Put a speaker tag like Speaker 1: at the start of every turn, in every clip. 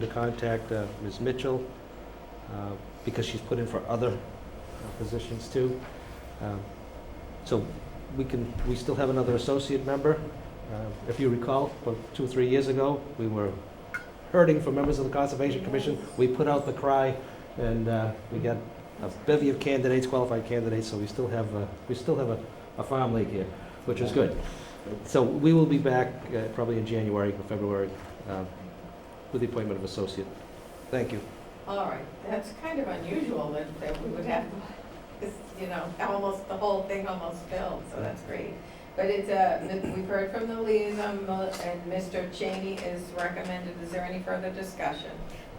Speaker 1: to contact uh, Ms. Mitchell, uh, because she's put in for other uh, positions too. Um, So we can, we still have another associate member. Uh, If you recall, about two or three years ago, we were hurting for members of the Conservation Commission. We put out the cry, and uh, we got a bevy of candidates, qualified candidates, so we still have, uh, we still have a a farm league here, which is good. So we will be back uh, probably in January or February uh, with the appointment of associate. Thank you.
Speaker 2: All right, that's kind of unusual that, that we would have, this, you know, almost, the whole thing almost filled, so that's great. But it's, uh, we've heard from the liaison, uh, and Mr. Cheney is recommended, is there any further discussion?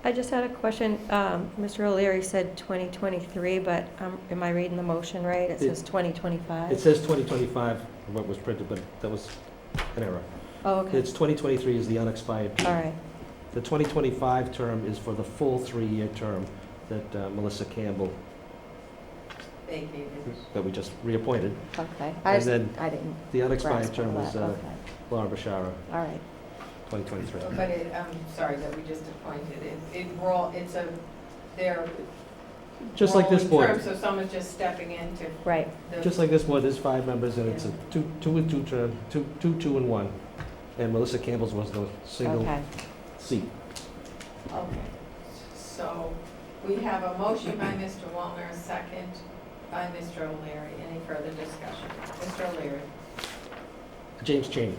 Speaker 3: I just had a question. Um, Mr. O'Leary said 2023, but um, am I reading the motion right? It says
Speaker 1: It
Speaker 3: 2025?
Speaker 1: says 2025, what was printed, but that was an error.
Speaker 3: Oh, okay,
Speaker 1: It's 2023 is the unexpired
Speaker 3: all
Speaker 1: term.
Speaker 3: right.
Speaker 1: The 2025 term is for the full three-year term that uh, Melissa Campbell,
Speaker 2: Thank you.
Speaker 1: that we just reappointed.
Speaker 3: Okay.
Speaker 1: And
Speaker 3: I just-
Speaker 1: then
Speaker 3: I didn't
Speaker 1: the unexpired
Speaker 3: grasp all
Speaker 1: term was
Speaker 3: that.
Speaker 1: uh,
Speaker 3: Okay,
Speaker 1: Laura Bashara,
Speaker 3: all right.
Speaker 1: 2023.
Speaker 2: But it, I'm sorry that we just appointed, it, it roll, it's a, they're.
Speaker 1: Just like this
Speaker 2: rolling
Speaker 1: board,
Speaker 2: term, So someone's just stepping into
Speaker 3: Right,
Speaker 2: the.
Speaker 1: just like this board, there's five members, and it's a two, two and two term, two, two, two and one. And Melissa Campbell's was the single
Speaker 3: okay.
Speaker 1: seat.
Speaker 2: Okay, so we have a motion by Mr. Wallner, a second by Mr. O'Leary. Any further discussion? Mr. O'Leary,
Speaker 1: James Cheney.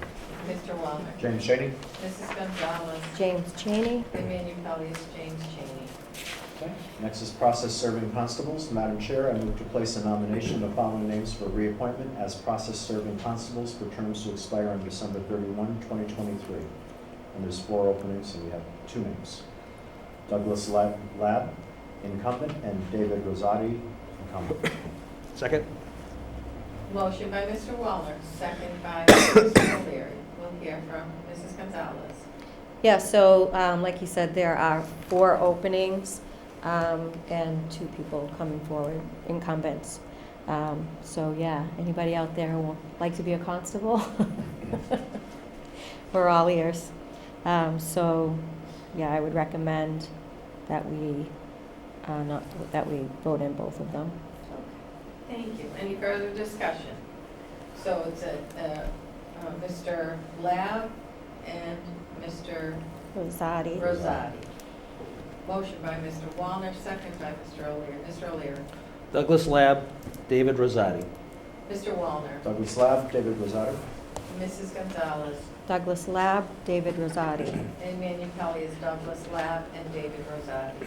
Speaker 2: Mr. Wallner,
Speaker 4: James Shaney?
Speaker 2: Mrs. Gonzalez,
Speaker 3: James Cheney,
Speaker 2: the Minipelli's James Cheney.
Speaker 4: Okay. Next is process serving constables. Madam Chair, I move to place a nomination of the following names for reappointment as process serving constables for terms to expire on December 31, 2023. And there's four openings, and we have two names. Douglas Lab, Lab, incumbent, and David Rosati, incumbent.
Speaker 1: Second?
Speaker 2: Motion by Mr. Wallner, second by Mr. O'Leary. We'll hear from Mrs. Gonzalez.
Speaker 3: yeah, so um, like you said, there are four openings um, and two people coming forward, incumbents. Um, So, yeah, anybody out there who would like to be a constable? We're all ears. Um, So, yeah, I would recommend that we, uh, not, that we vote in both of them.
Speaker 2: Thank you. Any further discussion? So it's a, uh, uh, Mr. Lab and Mr.
Speaker 3: Rosati?
Speaker 2: Rosati. Motion by Mr. Wallner, second by Mr. O'Leary. Mr. O'Leary.
Speaker 1: Douglas Lab, David Rosati.
Speaker 2: Mr. Wallner.
Speaker 4: Douglas Lab, David Rosati.
Speaker 2: Mrs. Gonzalez.
Speaker 3: Douglas Lab, David Rosati.
Speaker 2: And Manu Pelley is Douglas Lab and David Rosati.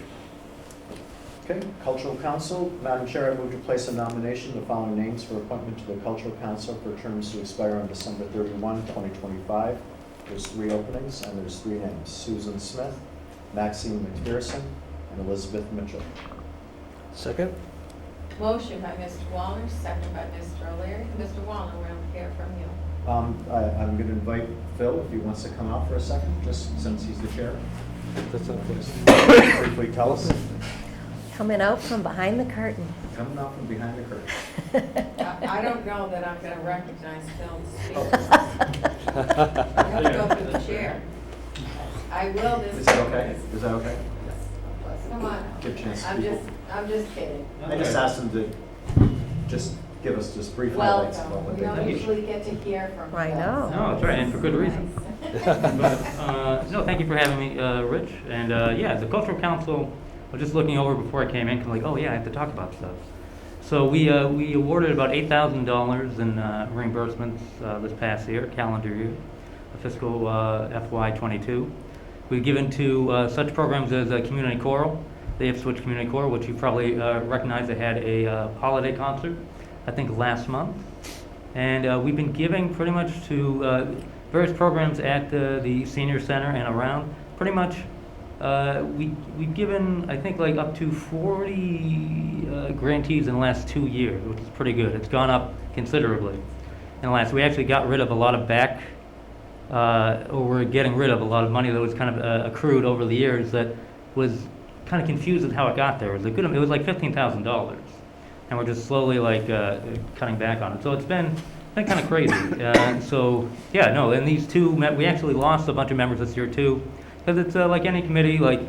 Speaker 4: Okay, Cultural Council, Madam Chair, I move to place a nomination, of the following names for appointment to the Cultural Council for terms to expire on December 31, 2025. There's three openings, and there's three names, Susan Smith, Maxine McPherson, and Elizabeth Mitchell.
Speaker 1: Second?
Speaker 2: Motion by Mr. Wallner, second by Mr. O'Leary. Mr. Wallner, we'll hear from you.
Speaker 4: Um, I- I'm going to invite Phil, if he wants to come out for a second, just since he's the chair.
Speaker 1: That's not close.
Speaker 4: Briefly tell us,
Speaker 3: Coming out from behind the curtain.
Speaker 4: coming out from behind the curtain.
Speaker 2: I I don't know that I'm going to recognize Phil speaking. I have to go through the chair. I will this.
Speaker 4: Is that okay? Is that okay?
Speaker 2: Come on.
Speaker 4: Give chance to
Speaker 2: I'm
Speaker 4: people.
Speaker 2: just, I'm just kidding.
Speaker 4: I just asked him to just give us just brief highlights about
Speaker 2: Welcome.
Speaker 4: what
Speaker 2: We
Speaker 4: they
Speaker 2: don't
Speaker 4: did.
Speaker 2: usually get to hear from.
Speaker 3: I
Speaker 2: Phil.
Speaker 3: know.
Speaker 5: No, it's all right, and for good reason. But, uh, no, thank you for having me, uh, Rich. And, uh, yeah, the cultural council, I was just looking over before I came in, 'cause I'm like, oh, yeah, I have to talk about stuff. So we, uh, we awarded about eight thousand dollars in, uh, reimbursements, uh, this past year, calendar year, fiscal, uh, FY twenty-two. We've given to, uh, such programs as, uh, Community Choral, the Ipswich Community Choral, which you probably, uh, recognize, they had a, uh, holiday concert, I think last month. And uh, we've been giving pretty much to uh, various programs at the, the senior center and around. Pretty much, uh, we, we've given, I think, like up to 40 uh, grantees in the last two years, which is pretty good. It's gone up considerably. In the last, we actually got rid of a lot of back, uh, or we're getting rid of a lot of money that was kind of uh, accrued over the years that was kind of confused with how it got there. It was, a good, it was like $15,000 and we're just slowly like uh, cutting back on it. So it's been been kind of crazy. Uh, so yeah, no, and these two met, we actually lost a bunch of members this year too. Because it's uh, like any committee, like